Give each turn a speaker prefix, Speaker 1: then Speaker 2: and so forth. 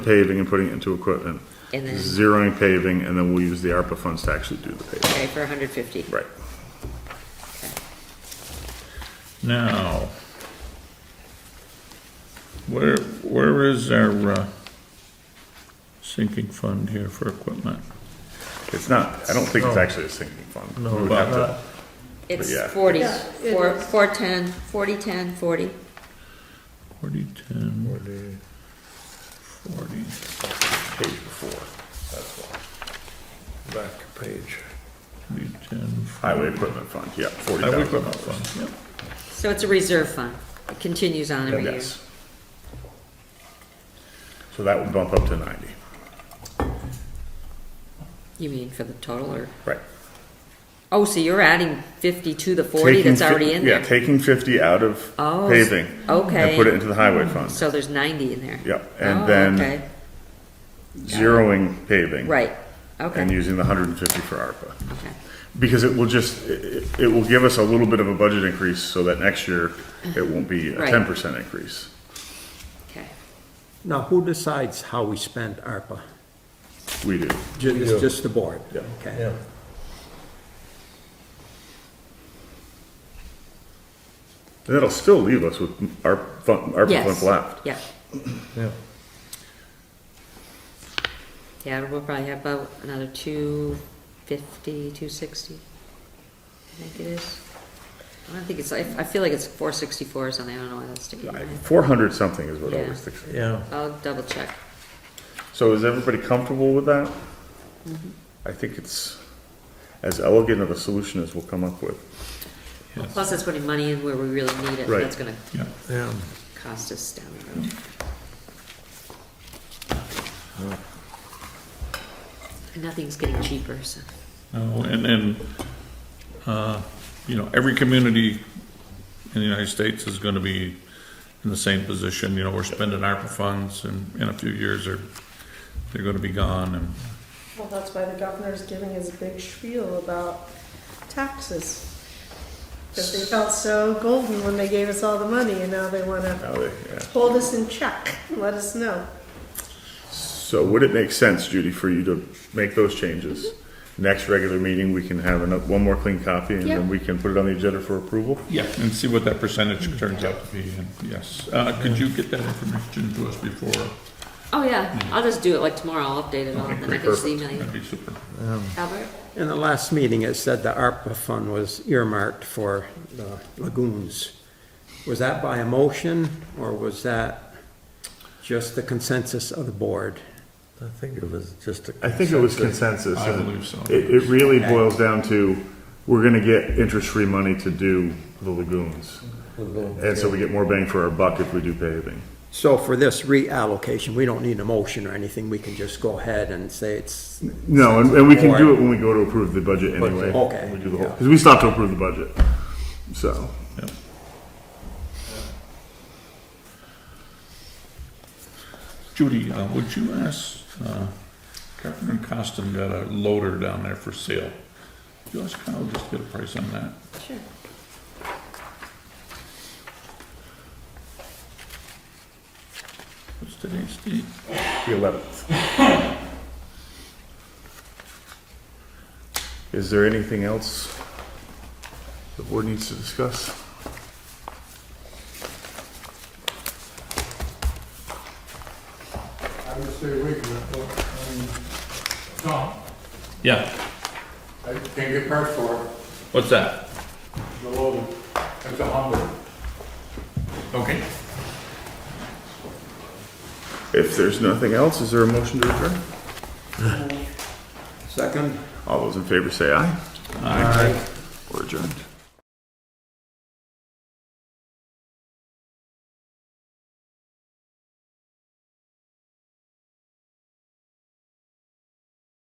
Speaker 1: paving and putting it into equipment.
Speaker 2: And then-
Speaker 1: Zeroing paving, and then we'll use the ARPA funds to actually do the paving.
Speaker 2: Okay, for hundred fifty.
Speaker 1: Right.
Speaker 3: Now, where, where is our uh, sinking fund here for equipment?
Speaker 1: It's not, I don't think it's actually a sinking fund. Oh, We would have to-
Speaker 2: It's
Speaker 1: Yeah.
Speaker 2: forty,
Speaker 4: Yeah, it
Speaker 2: four,
Speaker 4: is.
Speaker 2: four ten, forty, ten, forty.
Speaker 3: Forty, ten, forty.
Speaker 1: Page before, that's why.
Speaker 4: Back page.
Speaker 3: 40, 10,
Speaker 1: Highway equipment fund, yeah, forty
Speaker 3: Highway
Speaker 1: thousand
Speaker 3: equipment
Speaker 1: dollars.
Speaker 3: fund, yep.
Speaker 2: So it's a reserve fund. It continues on every year.
Speaker 1: Yes. So that would bump up to ninety.
Speaker 2: You mean for the total or,
Speaker 1: Right.
Speaker 2: oh, so you're adding fifty to the forty
Speaker 1: Taking
Speaker 2: that's
Speaker 1: fif-
Speaker 2: already in there?
Speaker 1: Yeah, taking fifty out of
Speaker 2: Oh,
Speaker 1: paving. And
Speaker 2: okay.
Speaker 1: put it into the highway fund.
Speaker 2: So there's ninety in there?
Speaker 1: Yep, and
Speaker 2: Oh,
Speaker 1: then-
Speaker 2: okay.
Speaker 1: Zeroing paving.
Speaker 2: Right,
Speaker 1: And
Speaker 2: okay,
Speaker 1: using the hundred and fifty for ARPA.
Speaker 2: okay.
Speaker 1: Because it will just, it, it will give us a little bit of a budget increase so that next year it won't be a
Speaker 2: Right.
Speaker 1: ten percent increase.
Speaker 2: Okay.
Speaker 5: Now, who decides how we spend ARPA?
Speaker 1: We do.
Speaker 5: Ju- It's just the board?
Speaker 1: Yeah.
Speaker 5: Okay.
Speaker 1: And that'll still leave us with our fund, our
Speaker 2: Yes.
Speaker 1: funds left.
Speaker 2: Yeah,
Speaker 4: Yeah.
Speaker 2: yeah, we'll probably have about another two fifty, two sixty. I think it is. I don't think it's, I, I feel like it's four sixty-four or something. I don't know why that's sticking in my head.
Speaker 1: Four hundred something is what
Speaker 2: Yeah.
Speaker 1: always sticks.
Speaker 4: Yeah.
Speaker 2: I'll double check.
Speaker 1: So is everybody comfortable with that?
Speaker 2: Mm-hmm.
Speaker 1: I think it's as elegant of a solution as we'll come up with.
Speaker 2: Plus, that's putting money in where we really need it.
Speaker 1: Right.
Speaker 2: That's gonna
Speaker 3: Yeah.
Speaker 4: Yeah.
Speaker 2: cost us down the road. And nothing's getting cheaper, so.
Speaker 3: No, and then, uh, you know, every community in the United States is gonna be in the same position, you know, we're spending ARPA funds and in a few years they're, they're gonna be gone and
Speaker 6: Well, that's why the governor's giving his big spiel about taxes. Because they felt so golden when they gave us all the money and now they want to
Speaker 1: Now they- yeah.
Speaker 6: hold us in check, and let us know.
Speaker 1: So would it make sense, Judy, for you to make those changes?
Speaker 2: Mm-hmm.
Speaker 1: Next regular meeting, we can have ano- one more clean copy and then we can put it on the agenda for approval?
Speaker 3: Yeah, and see what that percentage turns out to be, and yes. Uh, could you get that information to us before?
Speaker 2: Oh, yeah, I'll just do it like tomorrow. I'll update it all and then I
Speaker 1: great,
Speaker 2: can just
Speaker 1: perfect.
Speaker 2: email you.
Speaker 3: That'd be super.
Speaker 2: Albert?
Speaker 5: In the last meeting, it said the ARPA fund was earmarked for the lagoons. Was that by a motion, or was that just the consensus of the board?
Speaker 4: I think it was just a.
Speaker 1: I think it was consensus.
Speaker 3: I
Speaker 1: and
Speaker 3: believe so.
Speaker 1: It, it really boils down to, we're gonna get interest-free money to do the lagoons. And so we get more bang for our buck if we do paving.
Speaker 5: So for this reallocation, we don't need a motion or anything, we can just go ahead and say it's,
Speaker 1: No, and, and we can do it when we go to approve the budget anyway.
Speaker 5: Okay.
Speaker 1: We do the whole, because we stopped to approve the budget, so.
Speaker 3: Yep. Judy, uh, would you ask, uh, Carpenter and Costin got a loader down there for sale. Could you ask Kyle just to get a price on that?
Speaker 2: Sure.
Speaker 3: What's today's date?
Speaker 1: The eleventh. Is there anything else the board needs to discuss?
Speaker 7: I would stay awake from that book.
Speaker 3: Yeah,
Speaker 7: I can't get parts for it,
Speaker 3: what's that?
Speaker 7: the loader, it's a Hummer.
Speaker 3: Okay.
Speaker 1: If there's nothing else, is there a motion to adjourn?
Speaker 5: second?
Speaker 1: All those in favor say aye. Aye. We're adjourned.